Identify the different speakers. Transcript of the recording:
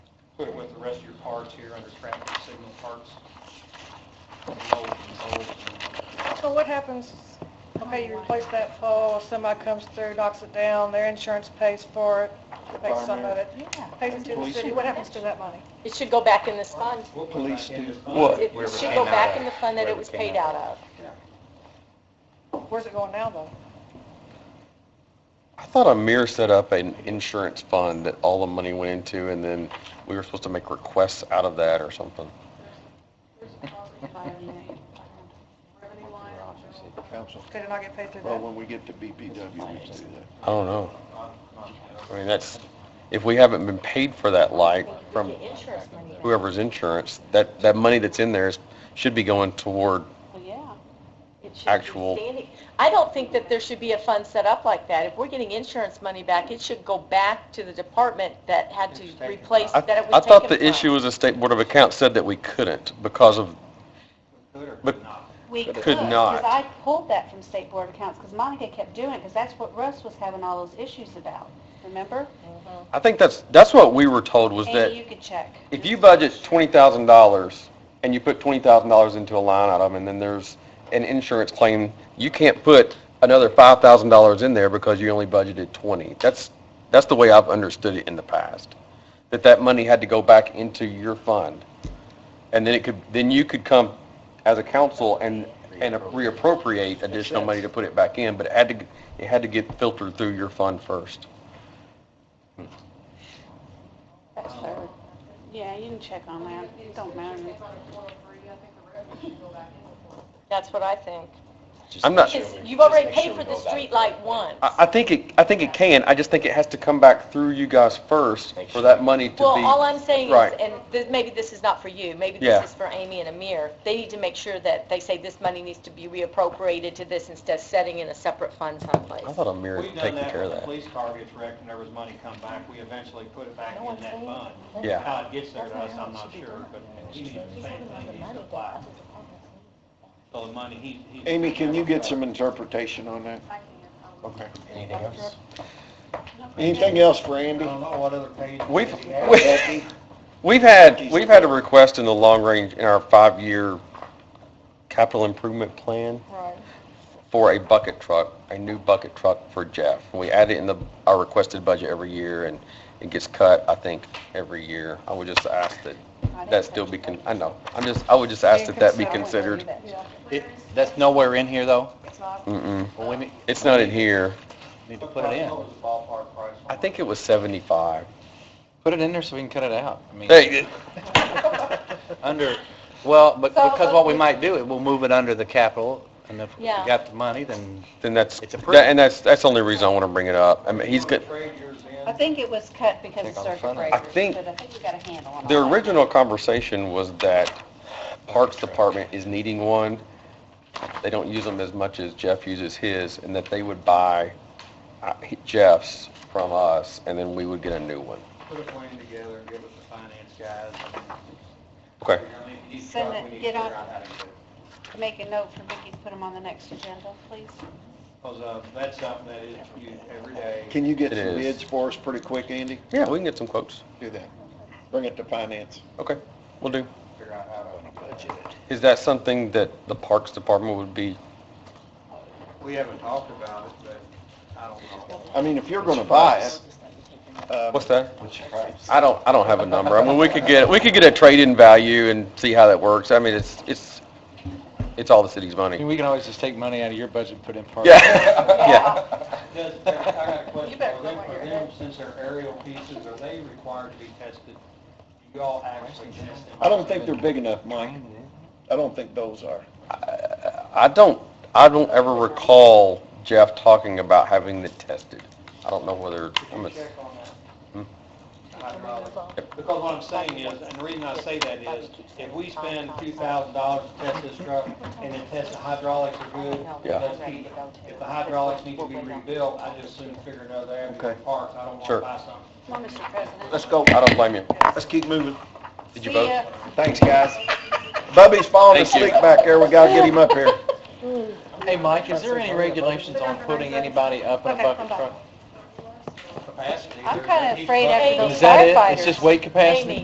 Speaker 1: the rest of your parts here under traffic signal parts. Low controls and-
Speaker 2: So what happens, okay, you replace that pole, somebody comes through, knocks it down, their insurance pays for it, pays some of it,
Speaker 3: Yeah.
Speaker 2: pays it to the
Speaker 4: Police
Speaker 2: city,
Speaker 4: do.
Speaker 2: what happens to that money?
Speaker 5: It should go back in this fund.
Speaker 1: We'll put
Speaker 4: Police
Speaker 1: back in
Speaker 4: do
Speaker 1: this fund.
Speaker 4: what?
Speaker 5: It
Speaker 6: Wherever it
Speaker 5: should
Speaker 6: came
Speaker 5: go
Speaker 6: out
Speaker 5: back
Speaker 6: of.
Speaker 5: in the fund that it
Speaker 6: Wherever
Speaker 5: was
Speaker 6: it came
Speaker 5: paid
Speaker 6: out
Speaker 5: out
Speaker 6: of.
Speaker 5: of.
Speaker 2: Where's it going now, though?
Speaker 6: I thought Amir set up an insurance fund that all the money went into, and then we were supposed to make requests out of that or something.
Speaker 4: Council,
Speaker 2: Could it not get paid through
Speaker 4: well,
Speaker 2: that?
Speaker 4: when we get to BPW, we can do that.
Speaker 6: I don't know. I mean, that's, if we haven't been paid for that light from
Speaker 5: The insurance money.
Speaker 6: whoever's insurance, that, that money that's in there is, should be going toward,
Speaker 5: Well, yeah. It should be
Speaker 6: Actual-
Speaker 5: standing- I don't think that there should be a fund set up like that. If we're getting insurance money back, it should go back to the department that had to
Speaker 1: It's taken
Speaker 5: replace,
Speaker 6: I,
Speaker 5: that it
Speaker 6: I
Speaker 5: was taken
Speaker 6: thought the
Speaker 5: from.
Speaker 6: issue was the State Board of Accounts said that we couldn't because of,
Speaker 1: Good or
Speaker 6: But-
Speaker 1: good not?
Speaker 3: We
Speaker 6: Could
Speaker 3: could,
Speaker 6: it-
Speaker 3: because
Speaker 6: not.
Speaker 3: I pulled that from State Board of Accounts, because Monica kept doing it, because that's what Russ was having all those issues about, remember?
Speaker 6: I think that's, that's what we were told was that
Speaker 3: And you could check.
Speaker 6: if you budget twenty thousand dollars and you put twenty thousand dollars into a line item and then there's an insurance claim, you can't put another five thousand dollars in there because you only budgeted twenty. That's, that's the way I've understood it in the past. That that money had to go back into your fund. And then it could, then you could come as a council and, and reappropriate additional money to put it back in, but it had to, it had to get filtered through your fund first.
Speaker 3: That's third. Yeah, you can check on that, it don't matter.
Speaker 5: That's what I think.
Speaker 6: I'm not.
Speaker 5: Because you've already paid for the street light once.
Speaker 6: I, I think it, I think it can, I just think it has to come back through you guys first for that money to be.
Speaker 5: Well, all I'm saying is,
Speaker 6: Right.
Speaker 5: and th- maybe this is not for you, maybe
Speaker 6: Yeah.
Speaker 5: this is for Amy and Amir, they need to make sure that they say this money needs to be reappropriated to this instead of setting in a separate fund someplace.
Speaker 6: I thought Amir
Speaker 1: We've
Speaker 6: had
Speaker 1: done
Speaker 6: taken
Speaker 1: that
Speaker 6: care
Speaker 1: when
Speaker 6: of
Speaker 1: the
Speaker 6: that.
Speaker 1: police car gets wrecked and there was money come back, we eventually put it back in that fund.
Speaker 6: Yeah.
Speaker 1: How it gets there to us, I'm not sure, but he needs the same thing, he's applied. So the money, he, he.
Speaker 4: Amy, can you get some interpretation on that? Okay.
Speaker 6: Anything else?
Speaker 4: Anything else for Andy?
Speaker 1: know what other page.
Speaker 6: We've, we- we've had, we've had a request in the long range, in our five-year capital improvement plan
Speaker 2: Right.
Speaker 6: for a bucket truck, a new bucket truck for Jeff. We add it in the, our requested budget every year and it gets cut, I think, every year. I would just ask that, that still be, con- I know, I'm just, I would just ask that that be considered.
Speaker 2: Yeah,
Speaker 7: It- That's nowhere in here, though?
Speaker 2: it's not,
Speaker 6: Mm-mm.
Speaker 7: Well, we need-
Speaker 6: It's not in here.
Speaker 7: need to put it in.
Speaker 1: Ballpark price.
Speaker 6: I think it was 75.
Speaker 7: Put it in there so we can cut it out. I mean,
Speaker 6: Hey,
Speaker 7: Under, well, but
Speaker 3: So,
Speaker 7: because what we might do, it will move it under the capital, and if we
Speaker 5: Yeah.
Speaker 7: got the money, then
Speaker 6: then that's,
Speaker 7: It's
Speaker 6: that-
Speaker 7: approved.
Speaker 6: and that's, that's the only reason I want to bring it up. I mean, he's good.
Speaker 1: Trade yours in.
Speaker 3: I think it was cut because of
Speaker 7: Think on the
Speaker 3: circuit
Speaker 7: front end.
Speaker 3: breakers.
Speaker 6: I think-
Speaker 3: But I think we got a handle on all
Speaker 6: The
Speaker 3: that.
Speaker 6: original conversation was that Parks Department is needing one. They don't use them as much as Jeff uses his, and that they would buy uh, Jeff's from us, and then we would get a new one.
Speaker 1: Put a plan together and give it to the finance guys.
Speaker 6: Okay.
Speaker 1: I mean, if you need to
Speaker 3: Send
Speaker 1: talk,
Speaker 3: it-
Speaker 1: we need to
Speaker 3: get
Speaker 1: figure
Speaker 3: on-
Speaker 1: out how to do it.
Speaker 3: Make a note for Vicki to put them on the next agenda, please.
Speaker 1: Because, uh, that's something that is used every day.
Speaker 4: Can you get
Speaker 6: It
Speaker 4: some
Speaker 6: is.
Speaker 4: bids for us pretty quick, Andy?
Speaker 6: Yeah, we can get some quotes.
Speaker 4: Do that. Bring it to finance.
Speaker 6: Okay, we will do.
Speaker 1: Figure out how to.
Speaker 6: Is that something that the Parks Department would be,
Speaker 1: We haven't talked about it, but I don't know.
Speaker 4: I mean, if you're gonna buy it, uh,
Speaker 6: what's that?
Speaker 4: what's your price?
Speaker 6: I don't, I don't have a number. I mean, we could get, we could get a trade-in value and see how that works. I mean, it's, it's, it's all the city's
Speaker 7: I mean,
Speaker 6: money.
Speaker 7: we can always just take money out of your budget and put it in park.
Speaker 6: Yeah, yeah.
Speaker 1: Does, I got a question
Speaker 2: You better
Speaker 1: for them,
Speaker 2: put one
Speaker 1: for
Speaker 2: in your
Speaker 1: them, since they're aerial pieces, are they required to be tested? Do y'all actually test them?
Speaker 4: I don't think they're big enough, Mike. I don't think those are.
Speaker 6: I don't, I don't ever recall Jeff talking about having it tested. I don't know whether,
Speaker 1: Could
Speaker 6: I'm,
Speaker 1: you
Speaker 6: a-
Speaker 1: check on
Speaker 6: Hmm.
Speaker 1: that? Hydraulic. Because what I'm saying is, and the reason I say that is, if we spend two thousand dollars to test this truck, and then test the hydraulics are good,
Speaker 6: Yeah.
Speaker 1: let's keep it. If the hydraulics need to be rebuilt, I just soon figure another avenue
Speaker 4: Okay.
Speaker 1: of parts, I don't want
Speaker 6: Sure.
Speaker 1: to buy something.
Speaker 3: Well, Mr. President.
Speaker 6: let's go, I don't blame you.
Speaker 4: Let's keep moving.
Speaker 6: Did you
Speaker 3: See
Speaker 6: vote?
Speaker 3: ya.
Speaker 4: Thanks, guys. Bubby's falling
Speaker 6: Thank you.
Speaker 4: asleep back there. We gotta get him up here.
Speaker 7: Hey, Mike, is there any regulations on putting anybody up in a
Speaker 3: Okay,
Speaker 7: bucket
Speaker 3: come back.
Speaker 7: truck?
Speaker 1: Capacity,
Speaker 3: I'm
Speaker 1: there's-
Speaker 3: kinda
Speaker 1: there's each
Speaker 3: afraid after
Speaker 1: bucket-
Speaker 3: those
Speaker 7: Is that it? It's
Speaker 3: firefighters.
Speaker 7: just weight capacity?
Speaker 5: Amy.